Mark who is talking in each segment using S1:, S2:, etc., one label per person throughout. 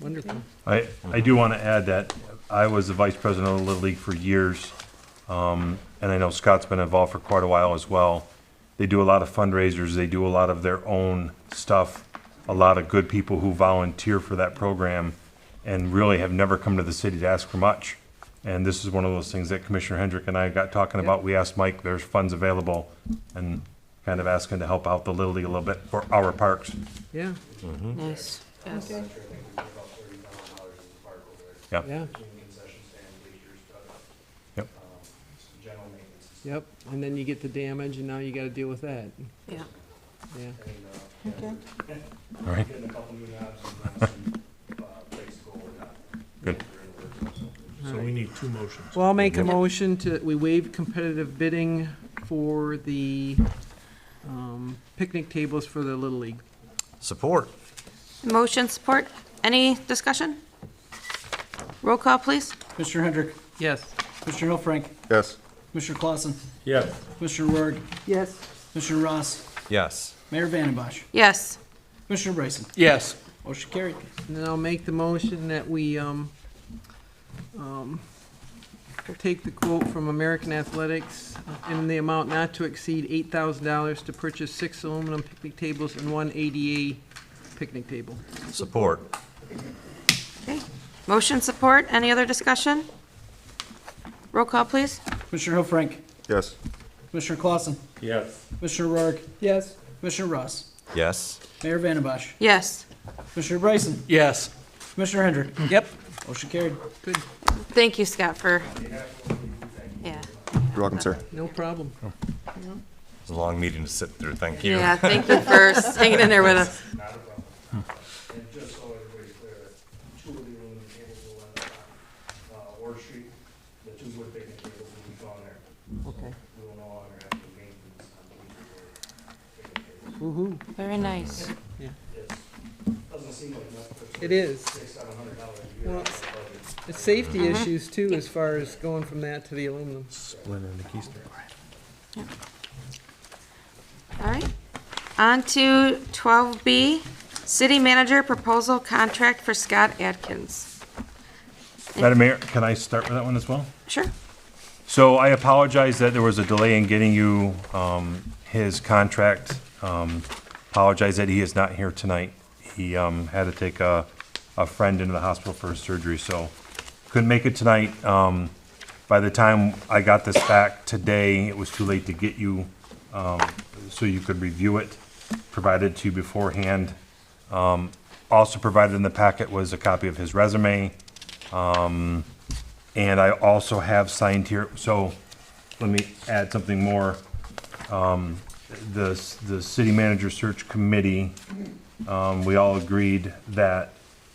S1: Wonderful.
S2: I, I do want to add that I was the vice president of the Little League for years, um, and I know Scott's been involved for quite a while as well. They do a lot of fundraisers, they do a lot of their own stuff, a lot of good people who volunteer for that program and really have never come to the city to ask for much. And this is one of those things that Commissioner Hendrick and I got talking about. We asked Mike, there's funds available, and kind of asking to help out the Little League a little bit for our parks.
S1: Yeah,
S3: Nice.
S1: yeah,
S2: Yep.
S1: yep. And then you get the damage and now you gotta deal with that.
S3: Yeah.
S1: Yeah,
S4: Okay.
S2: All right. Good.
S5: So we need two motions.
S1: well, I'll make a motion to, we waive competitive bidding for the, um, picnic tables for the Little League.
S6: Support.
S3: Motion support. Any discussion? Roll call, please.
S4: Mr. Hendrick,
S1: Yes,
S4: Mr. Hillfrank,
S6: Yes.
S4: Mr. Clausen,
S5: Yes.
S4: Mr. Rurg. Yes. Mr. Ross,
S6: Yes.
S4: Mayor Vandembosh,
S3: Yes.
S4: Commissioner Bryson.
S5: Yes.
S4: Motion carried.
S1: and then I'll make the motion that we, um, um, take the quote from American Athletics in the amount not to exceed eight thousand dollars to purchase six aluminum picnic tables and one ADA picnic table.
S6: Support.
S3: Okay. Motion support. Any other discussion? Roll call, please.
S4: Commissioner Hillfrank,
S6: Yes.
S4: Commissioner Clausen,
S5: Yes.
S4: Mr. Rurg. Yes. Mr. Ross,
S6: Yes.
S4: Mayor Vandembosh,
S3: Yes.
S4: Commissioner Bryson,
S5: Yes.
S4: Commissioner Hendrick.
S1: Yep.
S4: Motion carried.
S1: Good,
S3: Thank you, Scott, for, yeah.
S6: You're welcome, sir.
S1: no problem.
S6: It's a long meeting to sit through. Thank you.
S3: Yeah, thank you for hanging in there with us.
S7: And just so everybody's clear, two of the aluminum tables will end up on, uh, Orchard Street, the two wood picnic tables will be gone there.
S1: Okay.
S7: We will no longer have to maintenance on the wood picnic tables.
S1: Woo-hoo.
S3: Very nice.
S7: It's, doesn't seem like enough for
S1: It is.
S7: six, seven hundred dollars a year.
S1: Well,
S7: out of our budget.
S1: It's safety issues too, as far as going from that to the aluminum.
S3: All right. On to 12B, City Manager Proposal Contract for Scott Adkins.
S2: Madam Mayor, can I start with that one as well?
S3: Sure.
S2: So I apologize that there was a delay in getting you um, his contract. Um, Apologize that he is not here tonight. He um, had to take a a friend into the hospital for his surgery, so couldn't make it tonight. Um, By the time I got this back today, it was too late to get you, um, so you could review it, provided to you beforehand. Um, Also provided in the packet was a copy of his resume. And I also have signed here, so let me add something more. Um, The, the city manager search committee, um, we all agreed that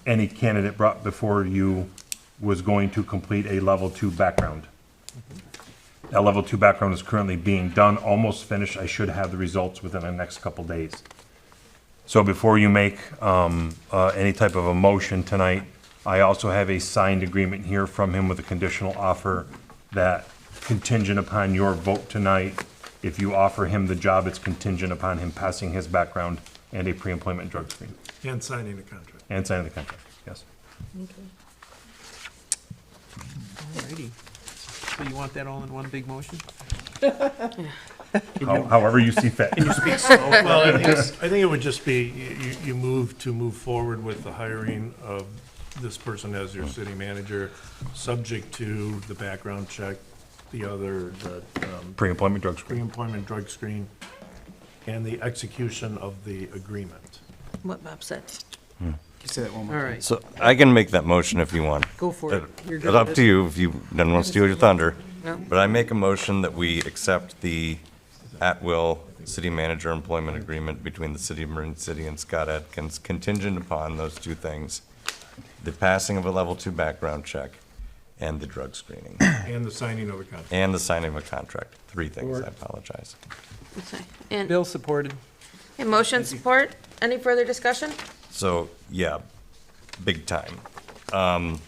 S2: any candidate brought before you was going to complete a level two background. That level two background is currently being done, almost finished. I should have the results within the next couple days. So before you make um, uh, any type of a motion tonight, I also have a signed agreement here from him with a conditional offer that contingent upon your vote tonight, if you offer him the job, it's contingent upon him passing his background and a pre-employment drug screen
S5: And signing the contract.
S2: and signing the contract, yes.
S1: Alrighty. So you want that all in one big motion?
S2: How- However you see fit.
S5: Well, I think, I think it would just be, you, you- you move to move forward with the hiring of this person as your city manager, subject to the background check, the other, the, um,
S2: Pre-employment drug screen.
S5: pre-employment drug screen, and the execution of the agreement.
S3: What Bob said.
S4: Can you say that one more time?
S1: Alright,
S6: So I can make that motion if you want.
S1: go for it. You're
S6: It's
S1: good.
S6: up to you if you don't want to steal your thunder.
S3: No.
S6: But I make a motion that we accept the at-will city manager employment agreement between the city of Marine City and Scott Atkins contingent upon those two things, the passing of a level two background check and the drug screening,
S5: And the signing of the contract.
S6: and the signing of a contract. Three things, I apologize.
S3: Okay. And
S1: Bill supported.
S3: and motion support. Any further discussion?
S6: So, yeah, big time. Um,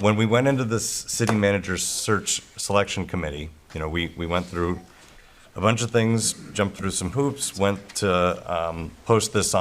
S6: When we went into this city manager's search selection committee, you know, we, we went through a bunch of things, jumped through some hoops, went to um, post this